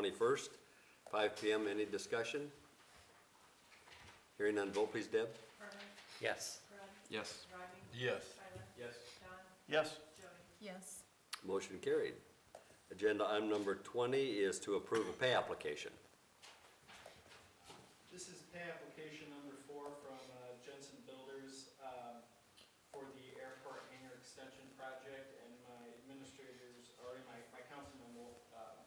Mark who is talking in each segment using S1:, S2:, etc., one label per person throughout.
S1: 21st, 5 PM. Any discussion? Hearing none, vote please, Deb.
S2: Yes.
S3: Yes.
S4: Yes.
S5: Yes.
S6: Yes.
S1: Motion carried. Agenda item number 20 is to approve a pay application.
S7: This is pay application number four from uh, Jensen Builders um, for the airport hangar extension project, and my administrators, or my, my councilman will, uh,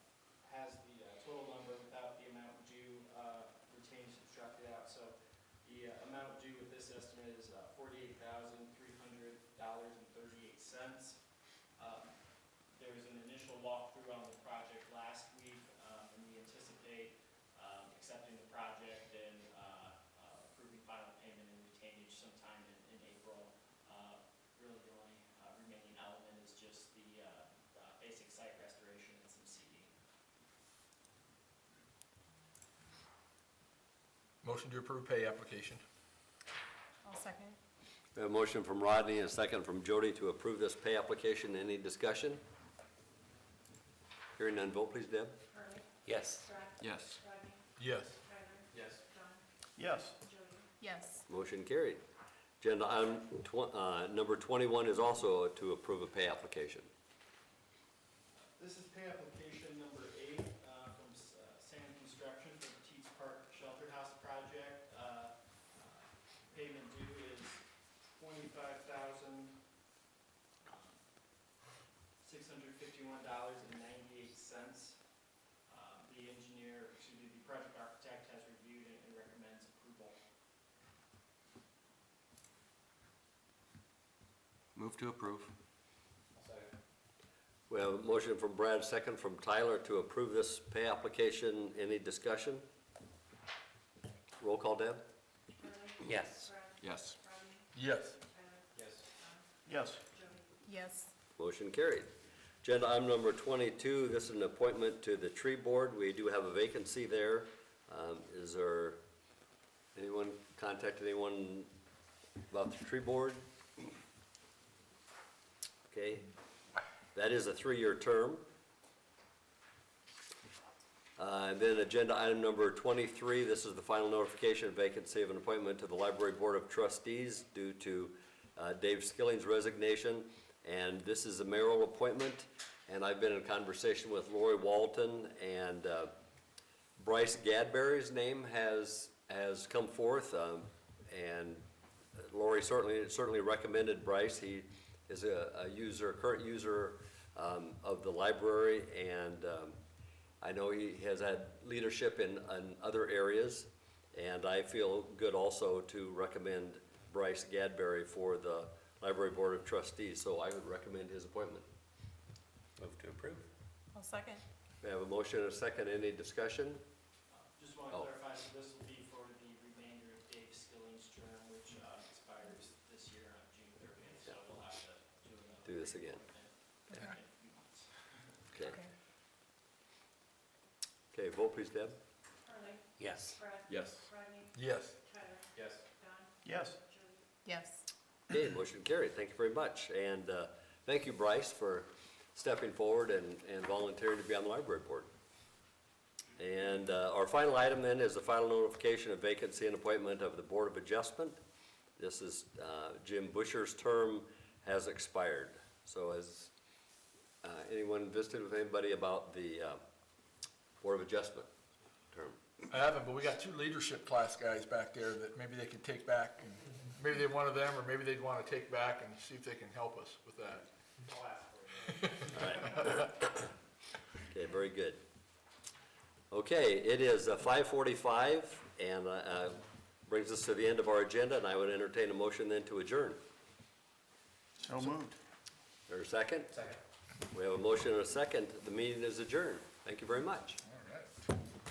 S7: has the uh, total number without the amount due, uh, retained, subtracted out, so the uh, amount due with this estimate is uh, forty-eight thousand, three hundred dollars and thirty-eight cents. Um, There was an initial walkthrough on the project last week, um, and we anticipate um, accepting the project and uh, uh, approving final payment and retainage sometime in, in April. Uh, Really the only uh, remaining element is just the uh, uh, basic site restoration and some seeding.
S4: Motion to approve pay application.
S6: I'll second.
S1: We have a motion from Rodney and a second from Jody to approve this pay application. Any discussion? Hearing none, vote please, Deb.
S2: Yes.
S3: Yes.
S4: Yes.
S7: Yes.
S5: Yes.
S6: Yes.
S1: Motion carried. Agenda item tw- uh, number 21 is also to approve a pay application.
S7: This is pay application number eight uh, from S- uh, Sand Construction for the Teats Park Shelter House project. Uh, Payment due is twenty-five thousand um, six hundred fifty-one dollars and ninety-eight cents. Um, The engineer, excuse me, the project architect has reviewed it and recommends approval.
S3: Move to approve.
S1: We have a motion from Brad, second from Tyler to approve this pay application. Any discussion? Roll call, Deb?
S2: Yes.
S3: Yes.
S4: Yes.
S7: Yes.
S5: Yes.
S6: Yes.
S1: Motion carried. Agenda item number 22, this is an appointment to the tree board. We do have a vacancy there. Um, Is there, anyone contacted anyone about the tree board? Okay, that is a three-year term. Uh, And then agenda item number 23, this is the final notification of vacancy of an appointment to the Library Board of Trustees due to uh, Dave Skilling's resignation. And this is a mayoral appointment, and I've been in conversation with Lori Walton, and uh, Bryce Gadberry's name has, has come forth. um, And Lori certainly, certainly recommended Bryce. He is a a user, current user um, of the library, and um, I know he has had leadership in, in other areas, and I feel good also to recommend Bryce Gadberry for the Library Board of Trustees, so I would recommend his appointment.
S2: Move to approve.
S6: I'll second.
S1: We have a motion and a second, any discussion?
S7: Just want
S1: Oh.
S7: to clarify, so this will be for the remainder of Dave Skilling's term, which uh, expires this year on June thirtieth, so we'll have to do another.
S1: Do this again.
S7: appointment in a few months.
S1: Okay,
S6: Okay.
S1: okay, vote please, Deb.
S2: Yes.
S3: Yes.
S4: Yes.
S7: Yes.
S5: Yes.
S6: Yes.
S1: Okay, motion carried, thank you very much, and, uh, thank you, Bryce, for stepping forward and, and volunteering to be on the library board. And, uh, our final item then is the final notification of vacancy and appointment of the Board of Adjustment. This is, uh, Jim Busher's term has expired, so has, uh, anyone visited with anybody about the, uh, Board of Adjustment term?
S4: I haven't, but we got two leadership class guys back there that maybe they could take back, and maybe they one of them, or maybe they'd want to take back and see if they can help us with that.
S7: I'll ask for it.
S1: Okay, very good. Okay, it is uh, 5:45, and uh, uh, brings us to the end of our agenda, and I would entertain a motion then to adjourn.
S5: So moved.
S1: Is there a second? Second. We have a motion and a second. The meeting is adjourned. Thank you very much.